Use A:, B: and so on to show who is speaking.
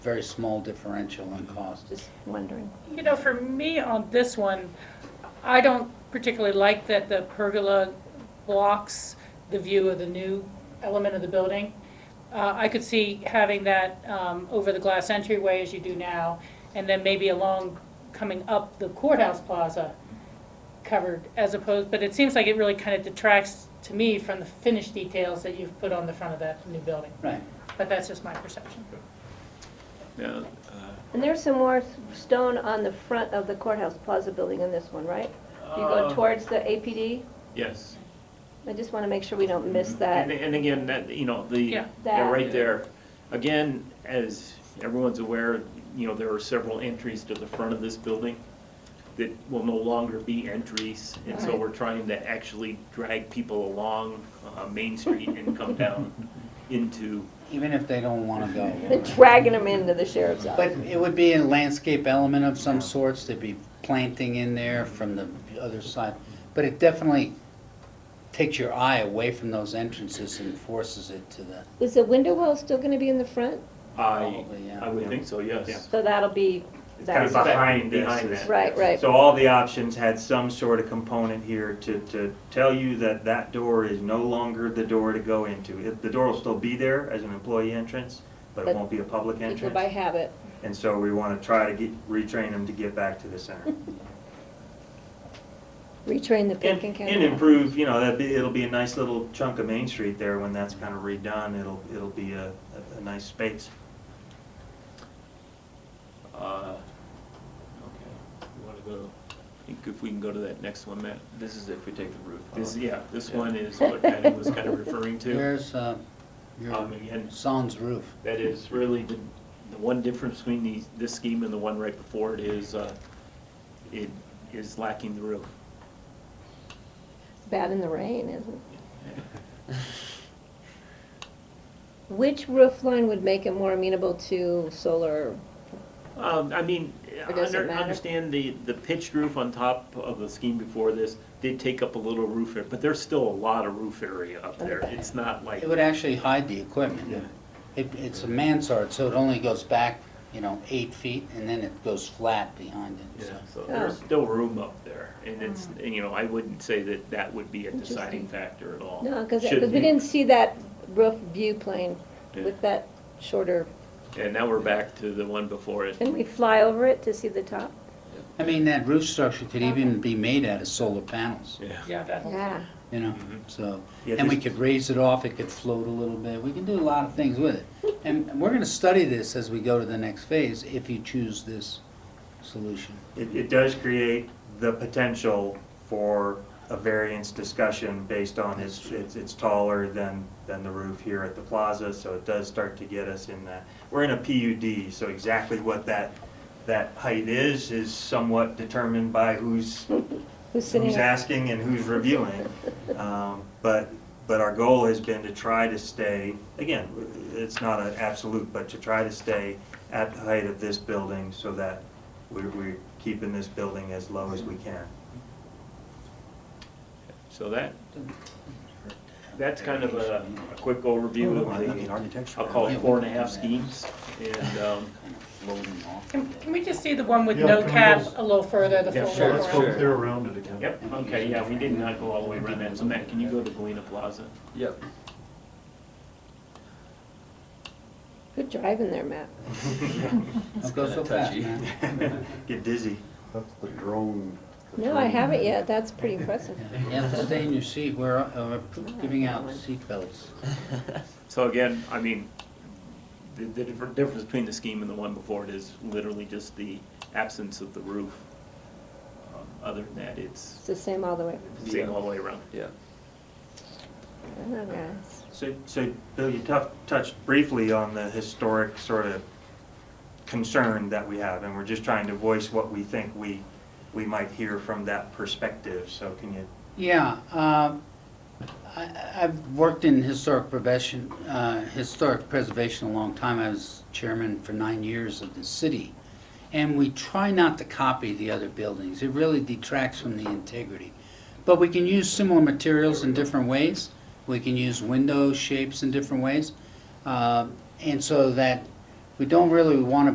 A: very small differential
B: Mm-hmm.
A: in cost.
C: Just wondering.
D: You know, for me on this one, I don't particularly like that the pergola blocks the view of the new element of the building. Uh, I could see having that um, over the glass entryway as you do now, and then maybe along, coming up the courthouse plaza covered as opposed, but it seems like it really kind of detracts to me from the finished details that you've put on the front of that new building.
A: Right.
D: But that's just my perception.
B: Yeah,
C: And there's some more s- stone on the front of the courthouse plaza building in this one, right? You go
B: Uh,
C: towards the APD?
B: yes.
C: I just want to make sure we don't
E: Mm-hmm.
C: miss
B: And,
C: that.
B: and again, that, you know, the,
D: Yeah.
B: yeah, right
C: That.
B: there. Again, as everyone's aware, you know, there are several entries to the front of this building that will no longer be entries. And so
C: Right.
B: we're trying to actually drag people along, uh, Main Street and come down into,
A: Even if they don't want to
C: They're
A: go.
C: dragging them into the sheriff's
A: But
C: office.
A: it would be a landscape element of some sorts, there'd be planting in there from the other side. But it definitely takes your eye away from those entrances and forces it to the,
C: Is the window well still going to be in the front?
B: I,
A: probably,
B: I
A: yeah.
B: would think so, yes.
C: So that'll be,
E: It's kind
C: that's,
E: of
B: That's-
E: behind this.
B: Behind
E: is-
B: that.
C: right, right.
E: So all the options had some sort of component here to, to tell you that that door is no longer the door to go into. It- The door will still be there as an employee entrance, but it
C: But
E: won't be a public
C: People by
E: entrance.
C: habit.
E: And so we want to try to get, retrain them to get back to the center.
C: Retrain the
E: And,
C: pink and
E: and
C: county.
E: improve, you know, that'd be, it'll be a nice little chunk of Main Street there when that's kind of redone. It'll, it'll be a, a- a nice space.
B: Uh, Okay, you want to go, I think if we can go to that next one, Matt.
F: This is if we take the roof
B: This,
F: off.
B: yeah, this one is what Patty was kind of referring to.
A: There's, uh, your,
B: Um, again,
A: sans roof.
B: That is really the, the one difference between these, this scheme and the one right before it is, uh, it is lacking the roof.
C: Bad in the rain, isn't it? Which roof line would make it more amenable to solar?
B: Um, I mean,
C: Or does it
B: under-
C: matter?
B: understand the, the pitched roof on top of the scheme before this did take up a little roof area, but there's still a lot of roof area up there. It's not like,
A: It would actually hide the equipment. It, it's a mansard, so it only goes back, you know, eight feet, and then it goes flat behind it, so.
B: yeah, so there's
C: Oh.
B: still room up there. And it's, and, you know, I wouldn't say that that would be a
C: Interesting.
B: deciding factor at all.
C: No, because,
B: Should
C: because we
B: be.
C: didn't see that roof view plane
B: Yeah.
C: with that shorter,
B: And now we're back to the one before it.
C: can we fly over it to see the top?
A: I mean, that roof structure could even be made out of solar panels,
B: Yeah.
D: Yeah, that whole.
C: Yeah,
A: you know, so.
E: Yeah,
A: And we
E: this-
A: could raise it off, it could float a little bit, we can do a lot of things with it. And we're gonna study this as we go to the next phase, if you choose this solution.
E: It, it does create the potential for a variance discussion based on it's, it's it's taller than, than the roof here at the plaza, so it does start to get us in that. We're in a PUD, so exactly what that, that height is, is somewhat determined by who's,
C: who's sitting
E: who's
C: up?
E: asking and who's reviewing. Um, But, but our goal has been to try to stay, again, it's not an absolute, but to try to stay at the height of this building so that we're, we're keeping this building as low as we can.
B: So that, that's kind of a, a quick overview of the, I'll call it four and a half schemes. And, um,
A: Floating off.
D: Can, can we just see the one with
G: Yeah,
D: no
G: can we
D: cap
G: just-
D: a little further, the
B: Yeah,
D: full
B: sure,
D: walk
G: Let's
D: around?
G: go clear around it again.
B: yep, okay, yeah, we did not go all the way around that. So Matt, can you go to Galena Plaza?
F: Yep.
C: Good driving there, Matt.
A: Don't go so
F: kinda
A: fast,
F: touchy.
A: man.
E: Get dizzy.
G: That's the drone. the
C: No, I
G: drone.
C: haven't yet, that's pretty impressive.
A: You have to stay in your seat, we're, uh, we're giving out seat belts.
B: So again, I mean, the, the differ- difference between the scheme and the one before it is literally just the absence of the roof. Um, Other than that,
C: It's
B: it's
C: the same all the way.
B: the same all the way around.
F: Yeah.
C: Oh, guys.
E: So, so Bill, you tough, touched briefly on the historic sort of concern that we have, and we're just trying to voice what we think we, we might hear from that perspective, so can you
A: Yeah, um, I- I've worked in historic prevention, uh, historic preservation a long time. I was chairman for nine years of the city. And we try not to copy the other buildings. It really detracts from the integrity. But we can use similar materials in different ways. We can use window shapes in different ways. Uh, And so that We don't really want to